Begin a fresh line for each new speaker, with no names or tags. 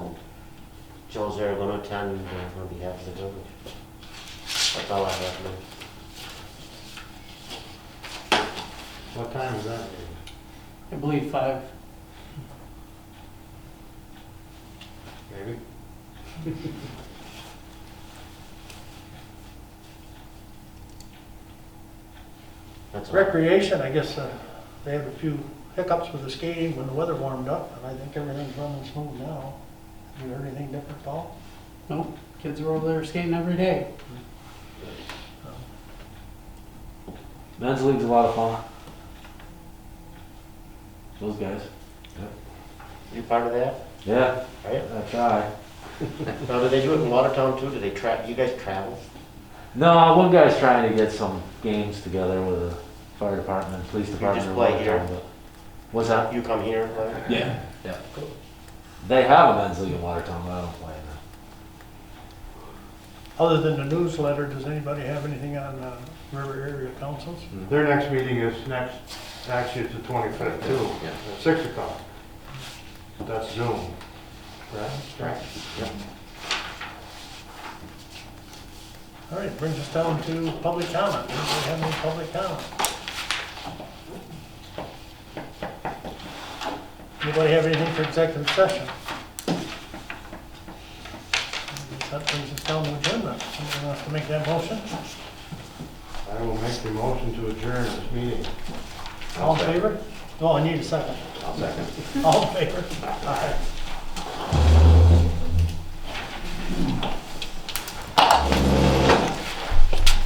Joe Zeragona, town meeting on behalf of the village. That's all I have, man. What time is that?
I believe five.
Maybe? That's all.
Recreation, I guess, uh, they had a few hiccups with the skating when the weather warmed up, and I think everything's running smooth now. Have you heard anything different, Paul?
Nope, kids are over there skating every day.
Men's league's a lot of fun. Those guys.
You part of that,
Yeah,
right?
I try.
Now, do they do it in Watertown too? Do they tra, you guys travel?
No, one guy's trying to get some games together with the fire department, police department.
just
or
play
whatever,
here.
but- What's that?
You come here and play?
Yeah, yeah. They have a men's league in Watertown, but I don't play in it.
Other than the newsletter, does anybody have anything on uh, river area councils?
Their next meeting is next, actually it's the twenty-fifth too, at six o'clock. That's Zoom.
Right.
All right, brings us down to public comment. Anybody have any public comment? Anybody have anything for executive session? That brings us down to agenda. Somebody wants to make that motion?
I will make the motion to adjourn this meeting.
All in favor? Oh, I need a second.
I'll second.
All in favor? Aye.